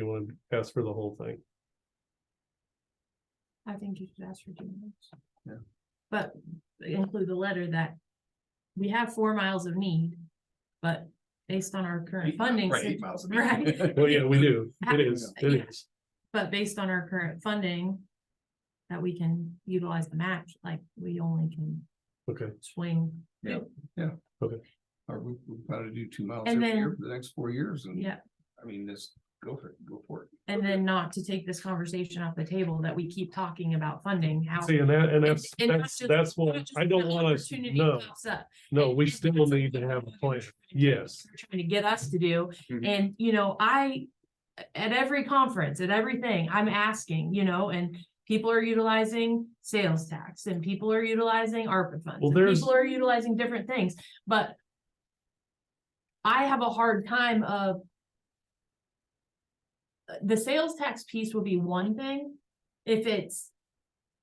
you want to ask for the whole thing? I think you should ask for two miles. Yeah. But include the letter that we have four miles of need, but based on our current Eight- funding, Right, sit- eight miles. Right. Well, Oh, yeah, we do. It It is, is. it is. but based on our current funding, that we can utilize the match, like we only can Okay, swing, Or we, we probably do two miles And every year then- for the next four years and. yeah. I mean, just go for it, go for it. And then not to take this conversation off the table that we keep talking about funding, how. see, and that, and that's, And- and that's, just- that's not what, just I don't when want us, opportunity no, pops up. no, And- we and still that's need what to have a plan. we're trying to do, Yes, we're Trying to get us to do, Mhm. and you know, I, at every conference, at everything, I'm asking, you know, and. People are utilizing sales tax and people are utilizing ARPA funds, Well, and there's- people are utilizing different things, but. I have a hard time of. The sales tax piece would be one thing, if it's.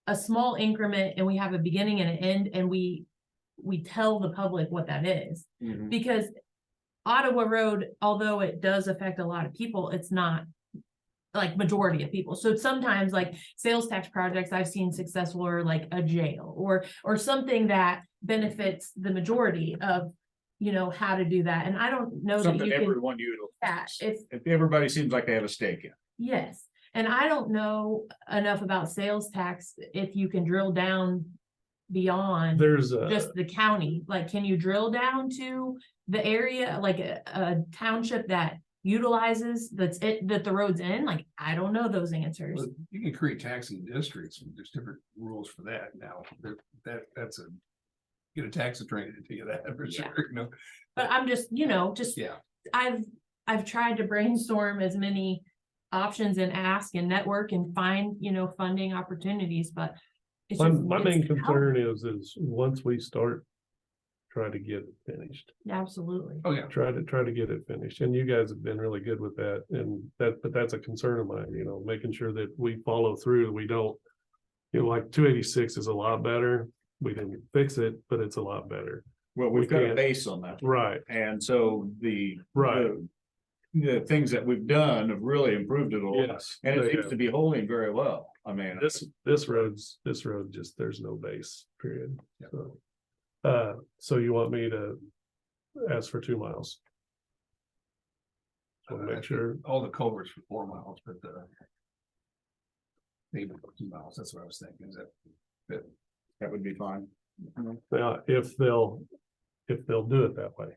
A small increment and we have a beginning and an end and we, we tell the public what that is. Because Ottawa Road, although it does affect a lot of people, it's not like majority of people. So sometimes like sales tax projects I've seen successful are like a jail or, or something that benefits the majority of, you know, how to do that. And I don't know that Something you can, everyone you, that if, if everybody seems like they have a stake in. yes. And I don't know enough about sales tax, if you can drill down beyond there's a, just the county, like, can you drill down to the area, like a, a township that utilizes that's it, that the road's in? Like, I don't know those answers. But You can create taxing districts, and there's different rules for that now, that, that, that's a. Get a tax attorney to tell you that for Yeah. sure, you know, But I'm just, you know, just, yeah, I've, I've tried to brainstorm as many options and ask and network and find, you know, funding opportunities, but it's my, just- my it's main tough. concern is, is once we start. Try to get it finished, Absolutely. oh, yeah. try to, try to get it finished, and you guys have been really good with that, and that, but that's a concern of mine, you know, making sure that we follow through, we don't. You know, like two eighty-six is a lot better, we didn't fix it, but it's a lot better, Well, We we've got a can't- base on that. right, And so the. right, the- The things that we've done have really improved it a lot. yes. And they it seems have. to be holding very well. I mean. This, this road's, this road just, there's no base, period, Yeah. so. Uh, so you want me to ask for two miles? So Uh, I make think sure, All the culverts for four miles, but the. Maybe two miles, that's what I was thinking, is that, That would be fine. now, if they'll, if they'll do it that way,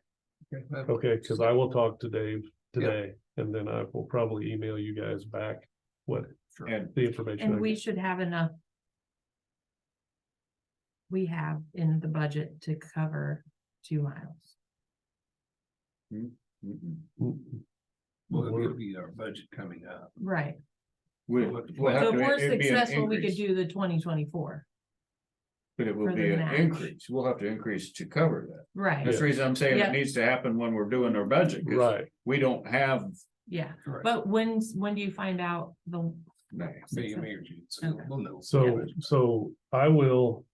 okay, that- okay, cause I will talk to Dave Yeah. today. And then I will probably email you guys back what sure. And the information. I And we get. should have enough. We have in the budget to cover two miles. mm, Mm, Well, it we're- would be our budget coming up. Right, we- We'll have we'll have so if to- we're it'd be an successful, we could increase, do the twenty twenty-four, But it for will the be an match. increase. We'll have to increase to cover that. right, That's the reason I'm saying Yeah. it needs to happen when we're doing our budget. 'cause Right, We don't have. yeah, Correct. but when's, when do you find out the? that. May, May or June, so Okay. we'll know. so, so I will,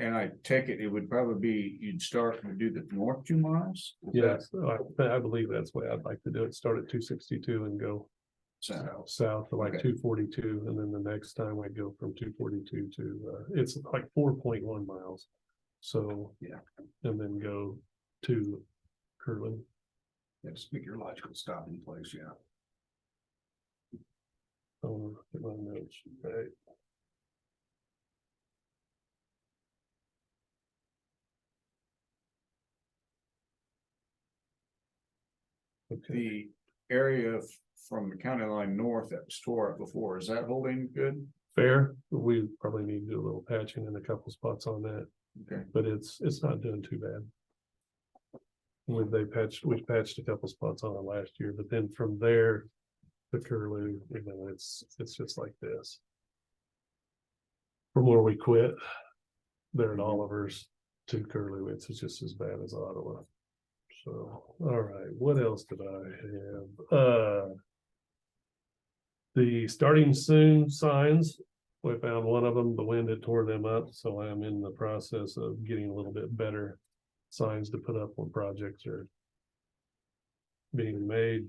And I take it, it would probably be, you'd start and do the north two miles? Is that yes, I, I believe that's the way I'd like to do it, start at two sixty-two and go. sound? south to like Okay. two forty-two, and then the next time I go from two forty-two to, uh, it's like four point one miles. So. Yeah. And then go to Kirtland. Yeah, just pick your logical stopping place, yeah. Oh, look at my notes, right? Okay, The area f- from the county line north that was tore up before, is that holding good? fair, we probably need to do a little patching in a couple spots on that. Okay. but it's, it's not doing too bad. We, they patched, we patched a couple spots on it last year, but then from there, the Curlew, you know, it's, it's just like this. From where we quit, there at Oliver's to Curlew, it's just as bad as Ottawa. So, all right, what else did I have? Uh. The starting soon signs, we found one of them, the wind had tore them up, so I'm in the process of getting a little bit better signs to put up when projects are being made